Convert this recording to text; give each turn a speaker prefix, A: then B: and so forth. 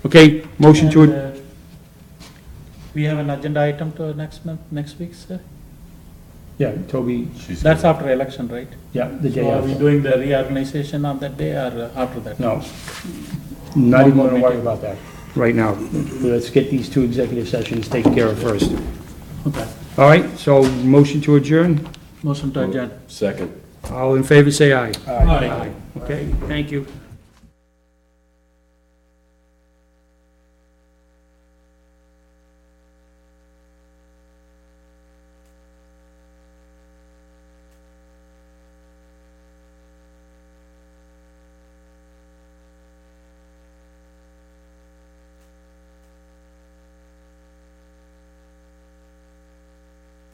A: Okay, motion to,
B: And,
A: ad-
B: uh, We have an agenda item to next month, next week, sir?
A: yeah, Toby,
C: She's
B: That's after election, right?
A: yeah, the day
B: So are we
A: after.
B: doing the reorganization on that day or uh, after that?
A: No, not even gonna worry
B: meeting.
A: about that right now. Let's get these two executive sessions taken care of first.
B: Okay,
A: All right, so motion to adjourn.
B: motion to adjourn.
C: Second.
A: All in favor, say aye.
B: Aye.
A: Okay, thank you.